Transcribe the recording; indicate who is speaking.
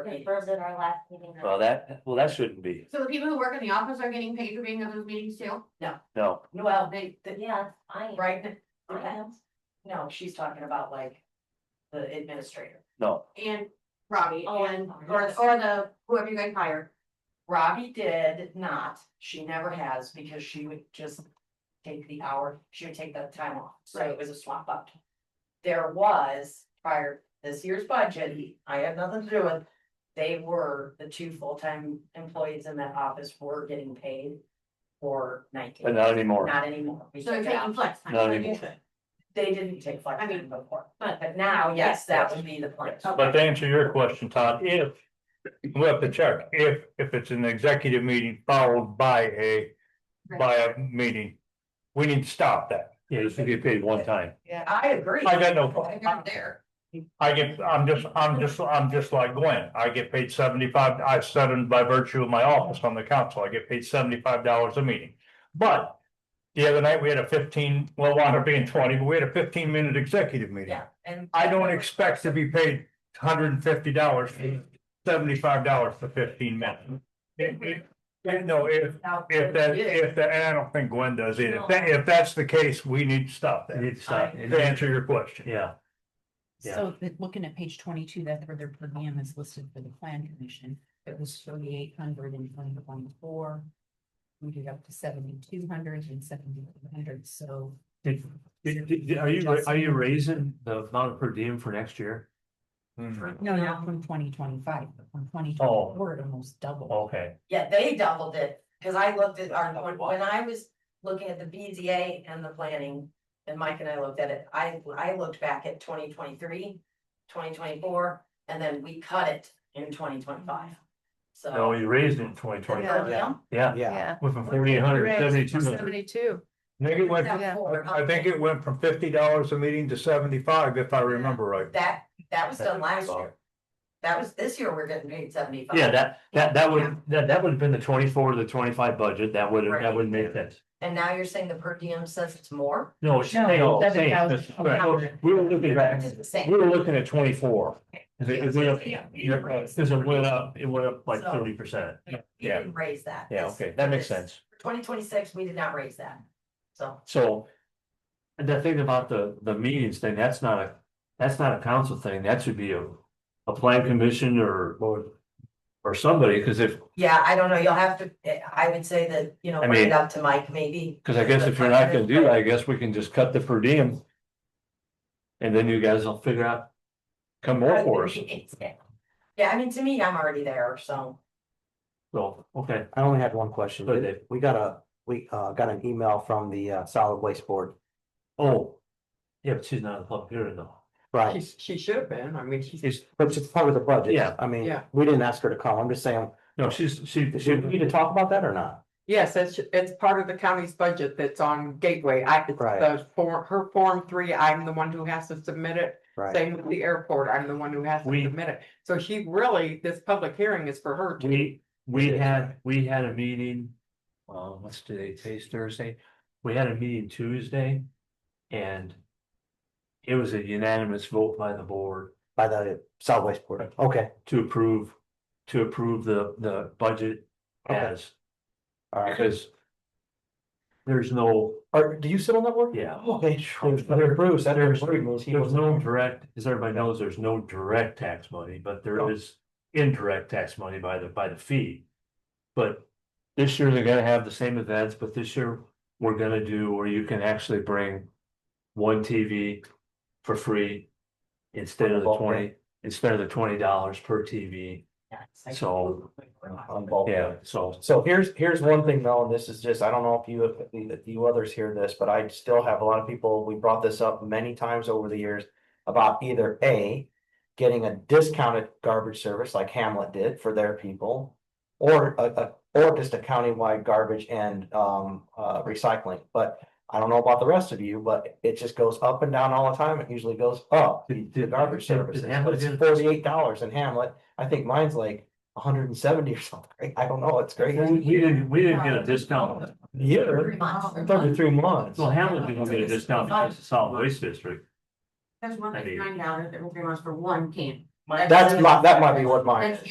Speaker 1: Right, those at our last meeting.
Speaker 2: Well, that, well, that shouldn't be,
Speaker 3: So the people who work in the office are getting paid for being at those meetings too?
Speaker 2: no,
Speaker 4: Well, they, they-
Speaker 1: Yeah, I am.
Speaker 4: right,
Speaker 1: I am.
Speaker 4: no, she's talking about like the administrator.
Speaker 2: no,
Speaker 3: And Robbie
Speaker 1: Oh,
Speaker 3: and,
Speaker 1: I'm
Speaker 3: or,
Speaker 1: sorry.
Speaker 3: or the, whoever you guys hire.
Speaker 4: Robbie did not, she never has, because she would just take the hour, she would take that time off, so it was a swap up. There was prior this year's budget, I had nothing to do with, they were, the two full-time employees in that office were getting paid for
Speaker 2: but
Speaker 4: nineteen,
Speaker 2: not anymore.
Speaker 4: not anymore. We
Speaker 3: So they're
Speaker 4: took it out.
Speaker 3: taking flex time.
Speaker 2: Not anymore.
Speaker 4: They didn't take flex
Speaker 3: I mean,
Speaker 4: time before, but but now, yes, that would be the plan.
Speaker 5: But to answer your question, Todd, if, we have to check, if, if it's an executive meeting followed by a, by a meeting, we need to stop that.
Speaker 2: Yeah, you should get paid one time.
Speaker 4: Yeah, I agree.
Speaker 5: I got no
Speaker 3: They're
Speaker 5: problem.
Speaker 3: not there.
Speaker 5: I get, I'm just, I'm just, I'm just like Gwen, I get paid seventy-five, I said it by virtue of my office on the council, I get paid seventy-five dollars a meeting. But the other night, we had a fifteen, well, it wound up being twenty, but we had a fifteen-minute executive meeting.
Speaker 4: Yeah, and.
Speaker 5: I don't expect to be paid hundred and fifty dollars, seventy-five dollars for fifteen minutes. It- it- it- no, if, if that, if that, and I don't think Gwen does either, if that, if that's the case, we need to stop
Speaker 2: You
Speaker 5: that,
Speaker 2: need to stop.
Speaker 5: to answer your question.
Speaker 2: uh, Yeah, Yeah.
Speaker 6: So the- looking at page twenty-two, that's where their per diem is listed for the plan commission. It was thirty-eight hundred in twenty twenty-four. We did up to seventy-two hundred and seventy-two hundred, so.
Speaker 2: Did- Did- did- did- Are you, ra- are you raising the amount of per diem for next year?
Speaker 7: Mm-hmm.
Speaker 6: No, not from twenty twenty-five, but from twenty twenty-four, it almost doubled.
Speaker 2: Okay,
Speaker 4: Yeah, they doubled it, cause I looked at our, when- when I was looking at the BZA and the planning. And Mike and I looked at it, I, I looked back at 2023, 2024, and then we cut it in twenty twenty-five.
Speaker 2: no,
Speaker 4: So.
Speaker 2: we raised it in twenty twenty,
Speaker 4: Yeah.
Speaker 2: yeah,
Speaker 7: Yeah.
Speaker 2: went from forty eight hundred to seventy two hundred.
Speaker 7: Seventy-two.
Speaker 5: I think it went, from-
Speaker 7: Yeah.
Speaker 5: I I think it went from fifty dollars a meeting to seventy-five, if I remember right.
Speaker 4: That, that was done last year, that was, this year we're getting paid seventy-five.
Speaker 2: Yeah, that, that, that would, that, that would have been the twenty four to the twenty five budget, that would, that would make sense.
Speaker 4: And now you're saying the per diem says it's more?
Speaker 2: No, she's
Speaker 6: No,
Speaker 2: saying,
Speaker 6: that's
Speaker 2: saying,
Speaker 6: about-
Speaker 2: right, we were looking at,
Speaker 4: It's the same.
Speaker 2: we were looking at twenty four. Cause it, it went up,
Speaker 4: Yeah.
Speaker 2: cause it went up, it went up like
Speaker 4: So-
Speaker 2: thirty percent,
Speaker 4: We
Speaker 2: Yeah.
Speaker 4: didn't raise that.
Speaker 2: yeah, okay, that makes sense.
Speaker 4: Twenty twenty-six, we did not raise that, so.
Speaker 2: So. and The thing about the, the meetings thing, that's not a, that's not a council thing, that should be a, a plan commission or, or. Or somebody, cause if,
Speaker 4: Yeah, I don't know, you'll have to, eh, I would say that, you know,
Speaker 2: I
Speaker 4: bring
Speaker 2: mean-
Speaker 4: it up to Mike maybe.
Speaker 2: cause I guess if you're not gonna do that, I guess we can just cut the per diem. And then you guys will figure out, come more for us,
Speaker 4: Yeah, I mean, to me, I'm already there, so.
Speaker 2: so, okay,
Speaker 8: I only had one question.
Speaker 2: Go ahead.
Speaker 8: We got a, we uh got an email from the uh solid waste board.
Speaker 2: oh. Yeah, but she's not a public hearing though.
Speaker 8: Right,
Speaker 7: She should have been, I mean, she's.
Speaker 8: but it's part of the budget.
Speaker 2: Yeah.
Speaker 8: I mean,
Speaker 7: Yeah.
Speaker 8: we didn't ask her to call. I'm just saying,
Speaker 2: No, she's, she, she,
Speaker 8: should we need to talk about that or not?
Speaker 7: Yes, it's, it's part of the county's budget that's on Gateway. I, it's
Speaker 8: Right.
Speaker 7: the form, her form three, I'm the one who has to submit it.
Speaker 8: Right,
Speaker 7: Same with the airport, I'm the one who has to
Speaker 2: We-
Speaker 7: submit it. So she really, this public hearing is for her. to-
Speaker 2: We, we had, we had a meeting, um, what's today, today's Thursday, we had a meeting Tuesday and. It was a unanimous vote by the board
Speaker 8: by the solid waste board. Okay,
Speaker 2: to approve, to approve the, the budget
Speaker 8: Okay.
Speaker 2: as,
Speaker 8: all right.
Speaker 2: because. There's no,
Speaker 8: Or do you sit on that board?
Speaker 2: yeah.
Speaker 8: Okay, sure.
Speaker 2: There's- there-
Speaker 8: Bruce, that
Speaker 2: There's,
Speaker 8: is Bruce. He
Speaker 2: there's
Speaker 8: was-
Speaker 2: no direct, as everybody knows, there's no direct tax money, but there is indirect tax money by the, by the fee. But this year they're gonna have the same events, but this year we're gonna do, where you can actually bring one TV for free instead of the
Speaker 8: Bulk, yeah.
Speaker 2: twenty, instead of the twenty dollars per TV. So, um,
Speaker 8: On bulk.
Speaker 2: yeah, so
Speaker 8: So here's, here's one thing though, and this is just, I don't know if you, if you others hear this, but I still have a lot of people, we brought this up many times over the years. About either A, getting a discounted garbage service like Hamlet did for their people. Or a, a, or just a countywide garbage and um, uh, recycling, but I don't know about the rest of you, but it just goes up and down all the time, it usually goes up.
Speaker 2: Did-
Speaker 8: The
Speaker 2: did-
Speaker 8: garbage
Speaker 2: did- did
Speaker 8: service,
Speaker 2: Hamlet
Speaker 8: it's
Speaker 2: get-
Speaker 8: forty-eight dollars in Hamlet, I think mine's like hundred and seventy or something, I don't know, it's crazy.
Speaker 2: we we didn't, we didn't get a discount.
Speaker 8: Yeah,
Speaker 4: Three months.
Speaker 8: it's every three months.
Speaker 2: So Hamlet didn't get a discount because it's solid waste district.
Speaker 3: There's one
Speaker 2: I
Speaker 3: that's
Speaker 2: do.
Speaker 3: nine dollars, there will be much for one can.
Speaker 8: That's my, that might be what mine is.
Speaker 3: That's